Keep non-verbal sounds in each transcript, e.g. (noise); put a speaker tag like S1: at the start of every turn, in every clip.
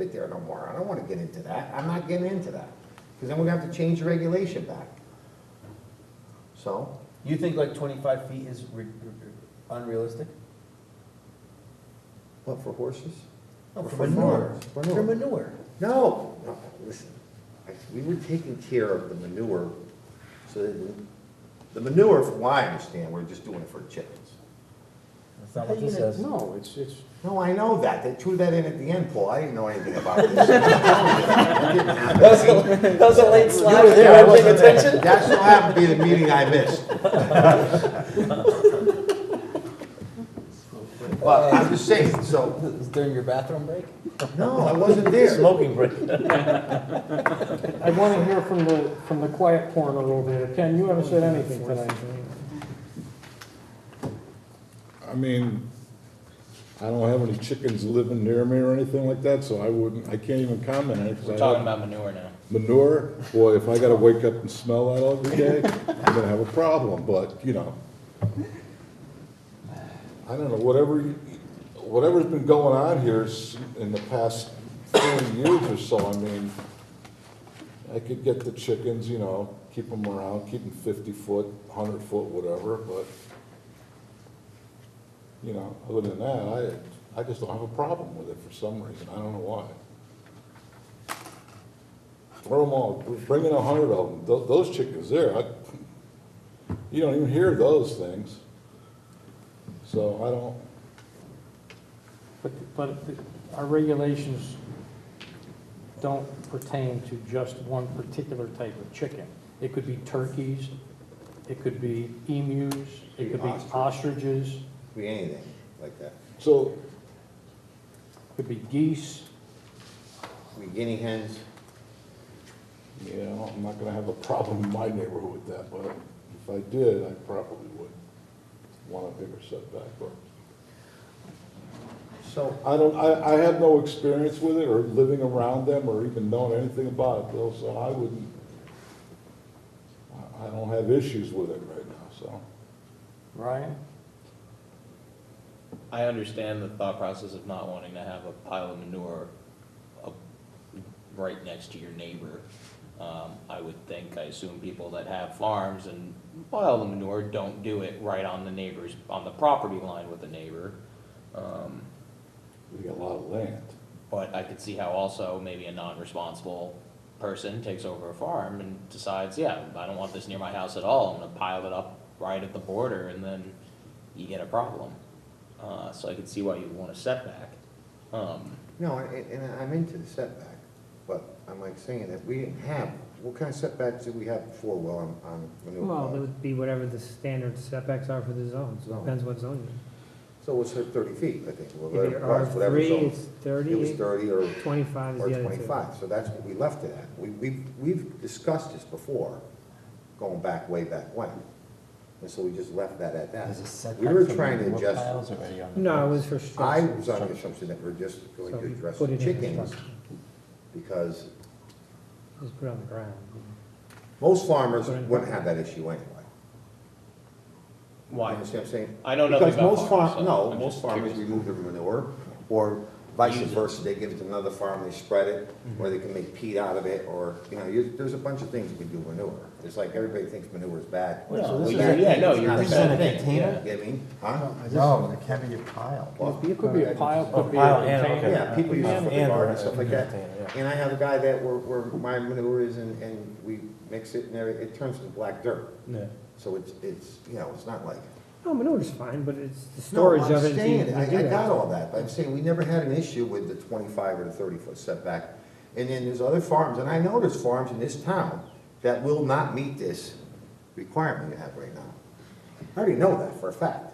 S1: it there no more. I don't wanna get into that. I'm not getting into that. Cause then we're gonna have to change the regulation back. So,
S2: You think like twenty-five feet is re- re- unrealistic?
S1: what, for horses?
S2: No, for
S1: For
S2: manure,
S1: manure,
S2: for manure.
S1: No, no, listen, we were taking care of the manure, so that- the manure, from what I understand, we're just doing it for chickens.
S2: That's not what this says.
S3: No, it's, it's,
S1: No, I know that, they threw that in at the end, Paul, I didn't know anything about this. It didn't happen.
S2: That was a late slide.
S1: You were there, I wasn't there. That so happened to be the meeting I missed. But I'm just saying, so,
S2: During your bathroom break?
S1: no, I wasn't there.
S2: Smoking break.
S3: I want to hear from the, from the quiet corner over there. Ken, you haven't said anything tonight.
S4: I mean, I don't have any chickens living near me or anything like that, so I wouldn't, I can't even comment on it. 'cause I
S5: We're talking
S4: have
S5: about manure now.
S4: Manure, boy, if I gotta wake up and smell that every day, I'm gonna have a problem, but, you know. I don't know, whatever, you- whatever's been going on here s- in the past thirty years or so, I mean, I could get the chickens, you know, keep them around, keep them fifty foot, hundred foot, whatever, but, you know, other than that, I, I just don't have a problem with it for some reason, I don't know why. Throw them all, bring in a hundred of them, Tho- those chickens there, I, you don't even hear those things. So I don't,
S3: But, but our regulations don't pertain to just one particular type of chicken. It could be turkeys, it could be emus, it could be
S1: Ostrich.
S3: ostriches,
S1: Be anything like that.
S4: so,
S3: it could be geese.
S1: We guinea hens,
S4: you know, I'm not gonna have a problem in my neighborhood with that, but if I did, I probably would want a bigger setback, but
S1: so,
S4: I don't, I, I have no experience with it, or living around them, or even knowing anything about it, Bill, so I wouldn't, I, I don't have issues with it right now, so.
S3: Ryan?
S5: I understand the thought process of not wanting to have a pile of manure up right next to your neighbor. Um, I would think, I assume people that have farms and pile the manure don't do it right on the neighbor's, on the property line with the neighbor. Um,
S4: We got a lot of land.
S5: But I could see how also maybe a non-responsible person takes over a farm and decides, yeah, I don't want this near my house at all, I'm gonna pile it up right at the border, and then you get a problem. Uh, so I could see why you'd want a setback. Um,
S1: no, and, and I'm into the setback, but I'm like saying that we didn't have, what kind of setbacks did we have before, Will, on, on manure?
S6: Well, it would be whatever the standard setbacks are for the zones,
S1: Zone.
S6: depends what zone
S1: So it's her thirty feet, I think,
S6: you're in. If
S1: whatever,
S6: you're
S1: it was,
S6: R
S1: whatever
S6: three,
S1: zone.
S6: it's
S1: It was
S6: thirty,
S1: thirty or,
S6: twenty-five is
S1: or
S6: the other two.
S1: twenty-five, so that's what we left it at. We, we've, we've discussed this before, going back, way back when. And so we just left that at that. We were trying to adjust,
S6: No, it was for
S1: I
S6: structures.
S1: was under the assumption that we're just going
S6: So
S1: to
S6: we
S1: address
S6: put it in the
S1: chickens,
S6: structure.
S1: because
S6: Just put it on the ground.
S1: most farmers wouldn't have that issue anyway. You
S5: why?
S1: understand what I'm saying?
S5: I don't know nothing about
S1: Because most
S5: farms,
S1: farm,
S5: so
S1: no,
S5: I'm
S1: most
S5: just
S1: farmers
S5: curious.
S1: remove their manure, or vice
S5: Use it. Mm-hmm.
S1: versa, they give it to another farm, they spread it, or they can make peat out of it, or, you know, you, there's a bunch of things you can do with manure. It's like, everybody thinks manure is bad.
S5: No,
S1: Well,
S5: this
S1: you
S5: is-
S1: gotta
S5: yeah,
S1: think
S5: no,
S1: it's
S5: you're
S1: not a
S5: just in
S1: bad
S5: a
S1: thing.
S5: container?
S1: You know what I mean, huh?
S2: No, it can be a pile.
S1: Well,
S3: It could be a pile, could be
S2: Pile
S3: a
S2: and-
S3: container.
S2: okay.
S1: Yeah, people use it for the
S2: And-
S1: garden and stuff like that.
S2: container, yeah.
S1: And I have a guy that, where, where my manure is, and, and we mix it, and every- it turns into black dirt.
S2: Yeah.
S1: So it's, it's, you know, it's not like
S6: No, manure's fine, but it's the
S1: No,
S6: storage
S1: I'm
S6: of it. you-
S1: saying,
S6: you
S1: I,
S6: do
S1: I
S6: that.
S1: got all that, but I'm saying, we never had an issue with the twenty-five or the thirty-foot setback. And then there's other farms, and I know there's farms in this town that will not meet this requirement you have right now. I already know that for a fact.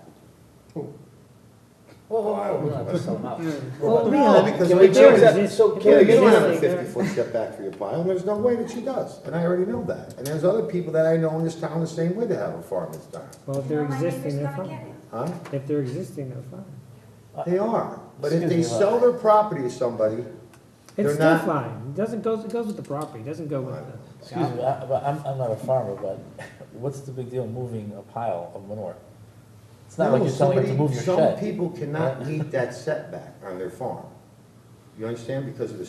S1: Oh, I don't know.
S6: Well,
S1: No,
S6: no,
S1: because
S6: if
S1: we
S6: they're
S1: do that-
S6: exist-
S2: so
S6: if
S1: Yeah,
S6: they're
S1: you don't have a
S6: existing, they're-
S1: fifty-foot setback for your pile, and there's no way that she does, and I already know that. And there's other people that I know in this town the same way that have a farm in this town,
S6: Well, if they're
S7: Now my neighbor's
S6: existing, they're
S7: gonna get
S6: fine.
S7: it.
S1: huh?
S6: If they're existing, they're fine.
S1: They are, but if
S2: Excuse
S1: they
S2: me, love.
S1: sell their property to somebody, They're
S6: It's still
S1: not-
S6: fine, it doesn't goes, it goes with the property, it doesn't go with the.
S2: Excuse me, I- but I'm, I'm not a farmer, but (laughs) what's the big deal moving a pile of manure? It's not like
S1: No,
S2: you're telling him to
S1: somebody-
S2: move
S1: Some
S2: your shed. (laughs)
S1: people cannot meet that setback on their farm. You understand? Because of the